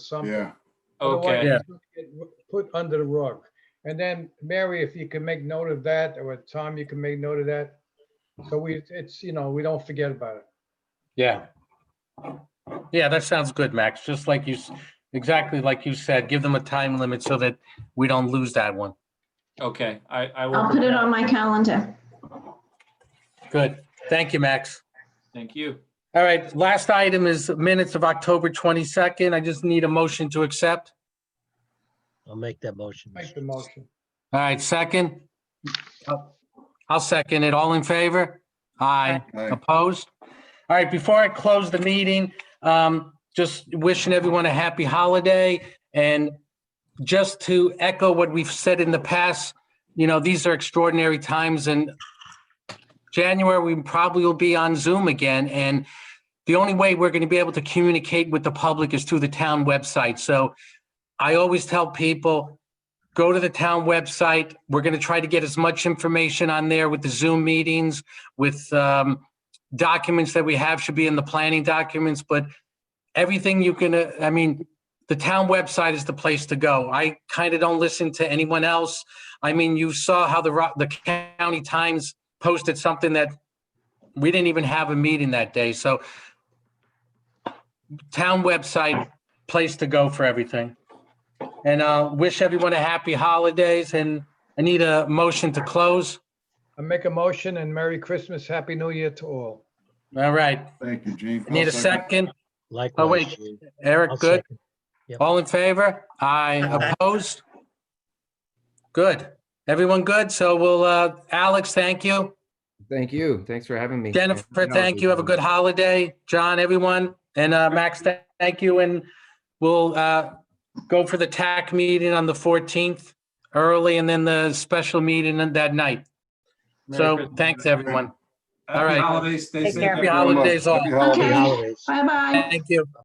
something. Yeah, Otherwise, Yeah. it's gonna get Put under the rug. And then, Mary, if you can make note of that, or Tom, you can make note of that. So we, it's, you know, we don't forget about it. Yeah. Yeah, that sounds good, Max. Just like you, s- exactly like you said, give them a time limit so that we don't lose that one. Okay, I, I I'll will, put it on my calendar. Good. Thank you, Max. thank you. All right, last item is minutes of October 22nd. I just need a motion to accept. I'll make that motion. Make the motion. All right, second. Oh, I'll second it. All in favor? Aye. Aye. Opposed? All right, before I close the meeting, um, just wishing everyone a happy holiday. And just to echo what we've said in the past, you know, these are extraordinary times and January, we probably will be on Zoom again. And the only way we're going to be able to communicate with the public is through the town website. So I always tell people, go to the town website. We're going to try to get as much information on there with the Zoom meetings, with, um, documents that we have should be in the planning documents, but everything you can, uh, I mean, the town website is the place to go. I kind of don't listen to anyone else. I mean, you saw how the, Ro- the county times posted something that we didn't even have a meeting that day, so town website, place to go for everything. And uh, wish everyone a happy holidays and I need a motion to close. I make a motion and Merry Christmas, Happy New Year to all. All right, thank you, Gene. need a I'll second. Likewise. Oh, wait. Gene. I'll Eric, good? second. All in favor? Aye. Aye. Opposed? Good. Everyone good? So we'll, uh, Alex, thank you. Thank you. Thanks for having me. Jennifer, thank you. Have a good holiday. John, everyone. And uh, Max, th- thank you. And we'll uh, go for the TAC meeting on the 14th early and then the special meeting on that night. Merry So Christmas. thanks, everyone. Happy all right. Holidays, stay Take safe. care. Happy everyone. second. holidays all. Happy Okay. holidays. Holidays. Bye-bye. Thank you.